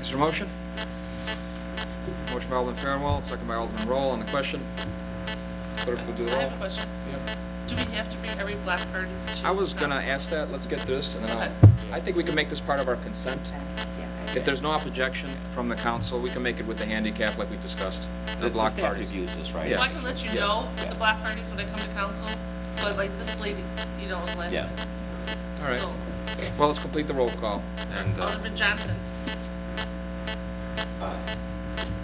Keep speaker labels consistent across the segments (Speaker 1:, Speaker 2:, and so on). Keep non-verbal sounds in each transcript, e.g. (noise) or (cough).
Speaker 1: Is there a motion? Motion by Alderman Farnwell, second by Alderman Roll on the question. Clerk will do the
Speaker 2: I
Speaker 1: roll.
Speaker 2: have a question. Do we have to bring every Blackbird to?
Speaker 1: I was gonna
Speaker 2: council?
Speaker 1: ask that, let's get through this, and then I'll, I think we can make this part of our consent. If there's no objection from the council, we can make it with the handicap like we discussed, the
Speaker 3: The
Speaker 1: block
Speaker 3: staff
Speaker 1: parties.
Speaker 3: reviews this, right?
Speaker 1: Yeah.
Speaker 2: Well, I can let you
Speaker 1: Yeah.
Speaker 2: know the
Speaker 3: Yeah.
Speaker 2: Blackbird is when I come to council, but like this lady, you know, was last
Speaker 3: Yeah.
Speaker 2: time.
Speaker 1: All right,
Speaker 2: So,
Speaker 1: well, let's complete the roll call, and, uh,
Speaker 2: Alderman Johnson.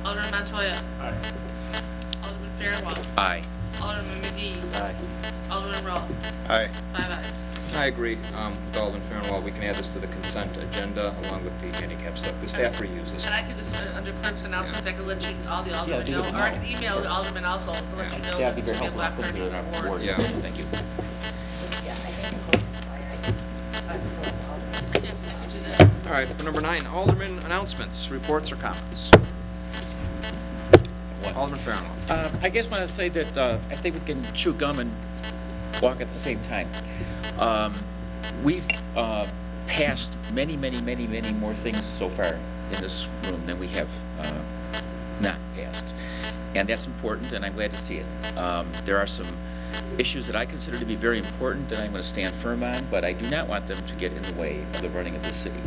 Speaker 2: Alderman Montoya. Alderman Fairwell.
Speaker 3: Aye.
Speaker 2: Alderman McGee. Alderman Rowe.
Speaker 4: Aye.
Speaker 2: Five ayes.
Speaker 1: I agree, um, with Alderman Farnwell, we can add this to the consent agenda along with the handicap stuff, the staff reviews this.
Speaker 2: And I can just, uh, under clerk's announcements, I can let you, all the aldermen
Speaker 3: do
Speaker 2: know,
Speaker 3: it
Speaker 2: or I can
Speaker 3: tomorrow.
Speaker 2: email the aldermen also, and let
Speaker 1: Yeah.
Speaker 2: you know.
Speaker 3: That'd be
Speaker 2: that
Speaker 3: very
Speaker 2: it's gonna
Speaker 3: helpful. I'll put
Speaker 2: Blackbird
Speaker 3: it on
Speaker 2: in
Speaker 3: our
Speaker 2: the
Speaker 3: board.
Speaker 1: Yeah.
Speaker 3: Thank you.
Speaker 2: Yeah, I can do that.
Speaker 1: All right, for number nine, Alderman announcements, reports or comments.
Speaker 3: What?
Speaker 1: Alderman Farnwell.
Speaker 3: Uh, I guess when I say that, uh, I think we can chew gum and walk at the same time. Um, We've uh, passed many, many, many, many more things so far in this room than we have uh, not passed. And that's important, and I'm glad to see it. Um, There are some issues that I consider to be very important that I'm going to stand firm on, but I do not want them to get in the way of the running of the city.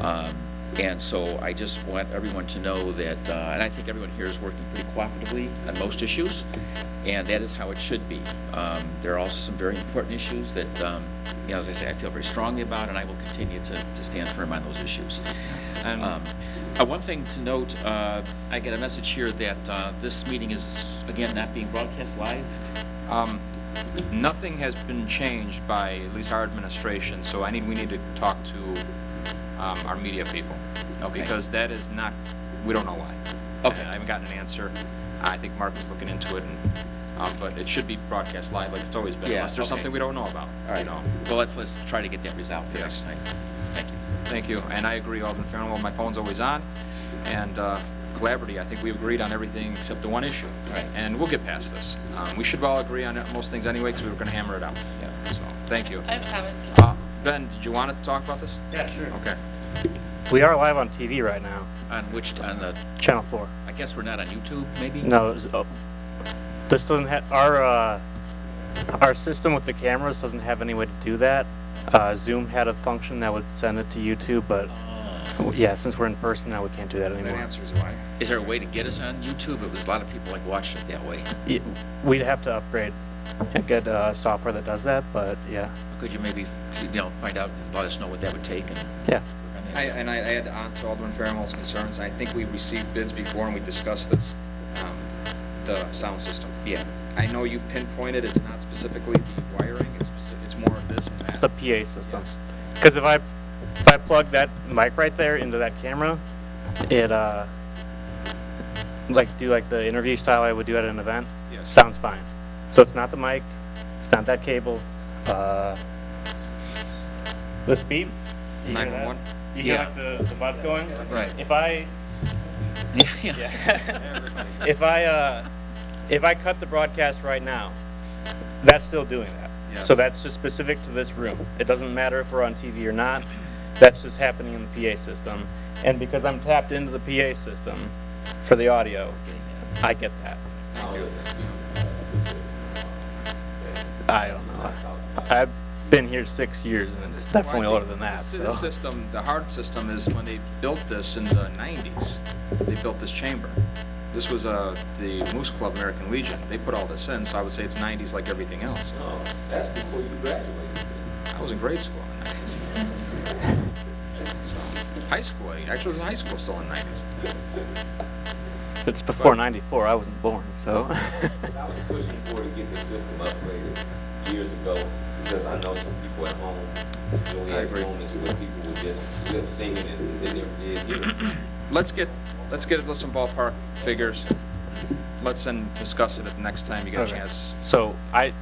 Speaker 3: Um, And so I just want everyone to know that, uh, and I think everyone here is working pretty cooperatively on most issues, and that is how it should be. Um, There are also some very important issues that, um, you know, as I say, I feel very strongly about, and I will continue to to stand firm on those issues. Um, uh, One thing to note, uh, I get a message here that uh, this meeting is, again, not being broadcast live.
Speaker 1: Um, Nothing has been changed by at least our administration, so I need, we need to talk to um, our media people.
Speaker 3: Okay.
Speaker 1: Because that is not, we don't know why.
Speaker 3: Okay.
Speaker 1: I haven't gotten an answer. I think Mark is looking into it, and, um, but it should be broadcast live like it's always been,
Speaker 3: Yeah,
Speaker 1: unless there's
Speaker 3: okay.
Speaker 1: something we don't know about. you know.
Speaker 3: Well, let's, let's try to get that resolved for
Speaker 1: Yes.
Speaker 3: next time. Thank you.
Speaker 1: Thank you, and I agree, Alderman Farnwell, my phone's always on, and uh, collaborative, I think we agreed on everything except the one issue.
Speaker 3: Right.
Speaker 1: And we'll get past this. Um, We should all agree on most things anyway, because we were going to hammer it out.
Speaker 3: Yeah.
Speaker 1: So, thank you.
Speaker 2: I have a comment.
Speaker 1: Uh, Ben, did you want to talk about this?
Speaker 5: Yeah, sure.
Speaker 1: Okay.
Speaker 5: We are live on TV right now,
Speaker 3: On which, on the,
Speaker 5: Channel 4.
Speaker 3: I guess we're not on YouTube, maybe?
Speaker 5: No, it was, oh, this doesn't have our uh, our system with the cameras doesn't have any way to do that. Uh, Zoom had a function that would send it to YouTube, but yeah, since we're in person now, we can't do that
Speaker 1: That
Speaker 5: anymore.
Speaker 1: answers why.
Speaker 3: Is there a way to get us on YouTube? It was a lot of people like watching it that way.
Speaker 5: Y- We'd have to upgrade and get uh, software that does that, but yeah,
Speaker 3: Could you maybe, you know, find out and let us know what that would take and
Speaker 5: yeah,
Speaker 3: work on
Speaker 1: I-
Speaker 3: that?
Speaker 1: And I add on to Alderman Farnwell's concerns, I think we received bids before and we discussed this, um, the sound system.
Speaker 3: Yeah, (laughs)
Speaker 1: I know you pinpointed, it's not specifically the wiring, it's speci- it's more of this and that.
Speaker 5: it's the PA system. Because if I if I plug that mic right there into that camera, it uh like do like the interview style I would do at an event.
Speaker 1: Yes.
Speaker 5: Sounds fine. So it's not the mic, it's not that cable. Uh, this beep. You hear that?
Speaker 1: 911?
Speaker 5: You hear
Speaker 3: Yeah.
Speaker 5: like the, the buzz going?
Speaker 3: right.
Speaker 5: If I
Speaker 3: Yeah, yeah.
Speaker 5: if I uh, if I cut the broadcast right now, that's still doing that.
Speaker 1: Yeah.
Speaker 5: So that's just specific to this room. It doesn't matter if we're on TV or not. That's just happening in the PA system. And because I'm tapped into the PA system for the audio, I get that. I don't know. I've been here six years, and it's definitely
Speaker 1: Well, I
Speaker 5: older
Speaker 1: think
Speaker 5: than that.
Speaker 1: this-
Speaker 5: So.
Speaker 1: This system, the hard system is when they built this in the nineties, they built this chamber. This was, uh, the Moose Club American Legion. They put all this in, so I would say it's nineties like everything else.
Speaker 6: Oh, that's before you graduated.
Speaker 1: I was in grade school in the nineties. High school, I actually was in high school still in the nineties.
Speaker 5: It's before '94. I wasn't born, so. (laughs)
Speaker 6: I was pushing for to get the system upgraded years ago, because I know some people at home, you know, we
Speaker 1: I
Speaker 6: had
Speaker 1: agree.
Speaker 6: moments where people would just lip singing and they never did hear it.
Speaker 1: Let's get, let's get, let's some ballpark figures. Let's then discuss it at the next time you get a
Speaker 5: Okay.
Speaker 1: chance.
Speaker 5: So I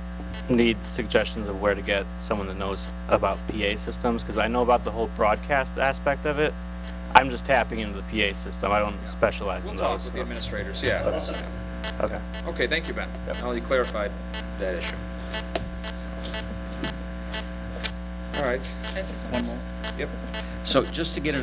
Speaker 5: need suggestions of where to get someone that knows about PA systems because I know about the whole broadcast aspect of it. I'm just tapping into the PA system. I don't specialize
Speaker 1: We'll
Speaker 5: in
Speaker 1: talk
Speaker 5: those.
Speaker 1: with the administrators, yeah.
Speaker 5: so- Okay.
Speaker 1: Okay, thank you, Ben.
Speaker 5: Yep.
Speaker 1: Now you clarified that issue. All right,
Speaker 2: Can I say something?
Speaker 3: One more.
Speaker 1: yep.
Speaker 3: So just to get it